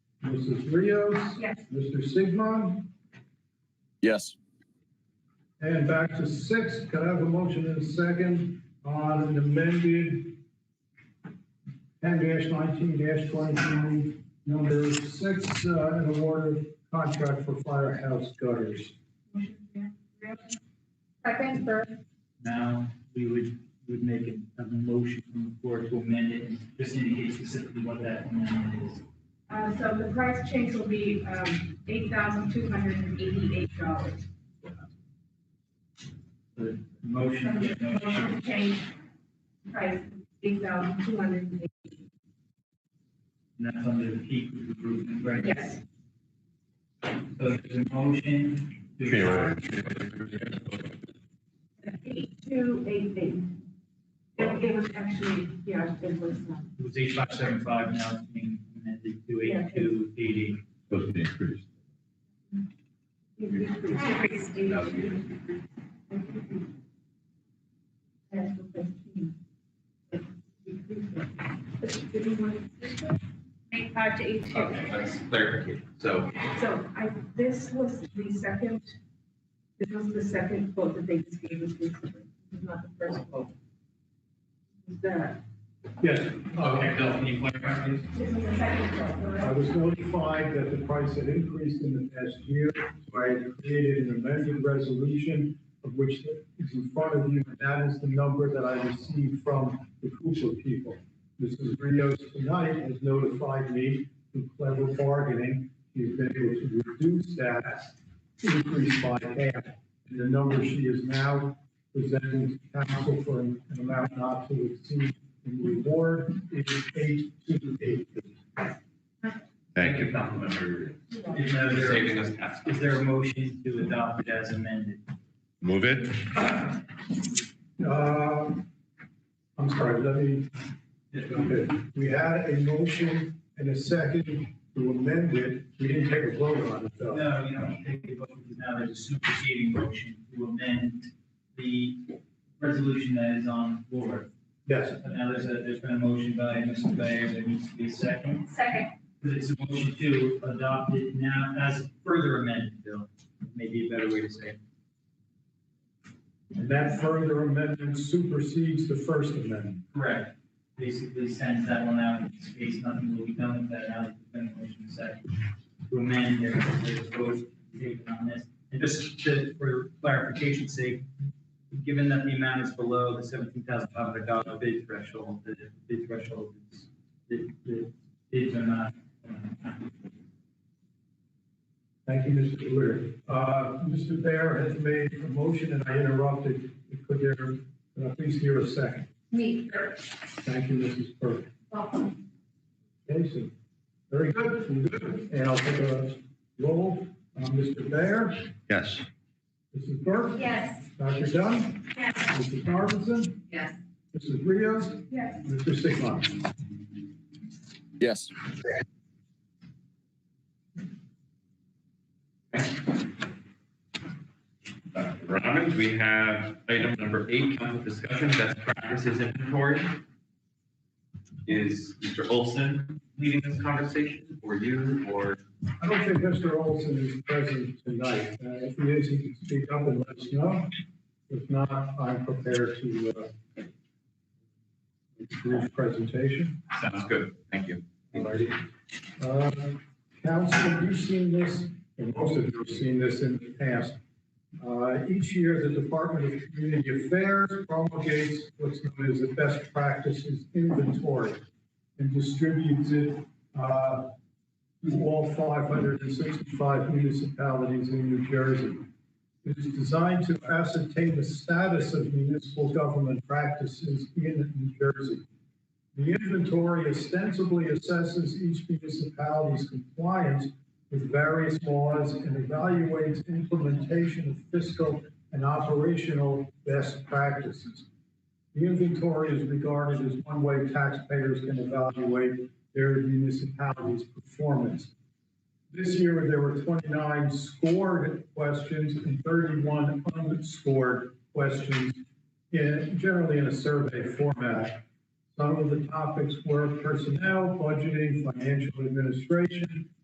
Mrs. Rios, Yes. Mr. Sigmund, Yes. and back to six. Could I have a motion in a second on an amended ten nineteen twenty-three, number six, uh, an award of contract for firehouse gutters? Second, Burke. Now, we would, would make a, a motion from the floor to amend it, and just indicate specifically what that amendment is. Uh, so the price change will be, um, eight thousand two hundred and eighty-eight dollars. The motion, Motion to change price, eight thousand two hundred and eighty. and that's under the peak group, right? Yes. So there's a motion to, Eight two eight eight. It, it was actually, yeah, it was, uh, it was eight five seven five, now it's being amended to eight two eight eight. supposed to be increased. it decreased. Eight two. That's the fifteen. Eight five to eight two. Okay, that's clarification. So So I, this was the second, this was the second quote that they just gave us recently, This is not the first quote. This is the, Yes, Okay, Bill, can you clarify please? this is the second quote, I correct? was notified that the price had increased in the past year, so I had created an amended resolution of which is in front of you, and that is the number that I received from the Cooper people. Mrs. Rios tonight has notified me through clever bargaining, she's been able to reduce that increase by half. And the number she is now presenting to council for an an amount not to exceed in reward is eight two eight. Thank you. Councilmember. Yeah. Is there- you're saving us tax. is there a motion to adopt it as amended? Move it? Uh, I'm sorry, let me, okay, we had a motion and a second to amend it. We didn't take a vote on it, though. No, you don't take the vote because now there's a superseding motion to amend the resolution that is on the floor. Yes, But now there's a, there's been a motion by Mr. Bayer, there needs to be a second. Second, It's a motion to adopt it now as further amended, Bill, maybe a better way to say it. and that further amendment supersedes the First Amendment. Correct. Basically sends that one out in space, nothing will be done with that now that the motion is second. To amend their, their vote taken on this. And just to, for clarification's sake, given that the amount is below the seventeen thousand five hundred dollar bid threshold, the bid threshold, is- the, the bids are not. um, Thank you, Mr. Weir. Uh, Mr. Bear has made a motion and I interrupted. Could there, could I please hear a second? me, Thank you, Mrs. Burke. Casey. Very good, we're good. And I'll take a roll. Uh, Mr. Bear, Yes. Mrs. Burke, yes. Dr. Dunn. Yes. Mrs. Harbison, Yes. Mrs. Rios, Yes. Mr. Sigmund. Yes. Dr. Robbins, we have item number eight, council discussion, best practices inventory. Is Mr. Olson leading this conversation, or you, or? I don't think Mr. Olson is present tonight. Uh, If he is, he can speak up and let us know. If not, I'm prepared to uh, brief presentation. Sounds good, thank you. Alrighty. Uh, Council, you've seen this, and most of you have seen this in the past. Uh, Each year, the Department of Community Affairs promulgates what's known as the Best Practices Inventory and distributes it uh, to all 565 municipalities in New Jersey. It is designed to ascertain the status of municipal government practices in New Jersey. The inventory ostensibly assesses each municipality's compliance with various laws and evaluates implementation of fiscal and operational best practices. The inventory is regarded as one way taxpayers can evaluate their municipality's performance. This year, there were 29 scored questions and 31 unscored questions, in- generally in a survey format. Some of the topics were personnel, budgeting, financial administration,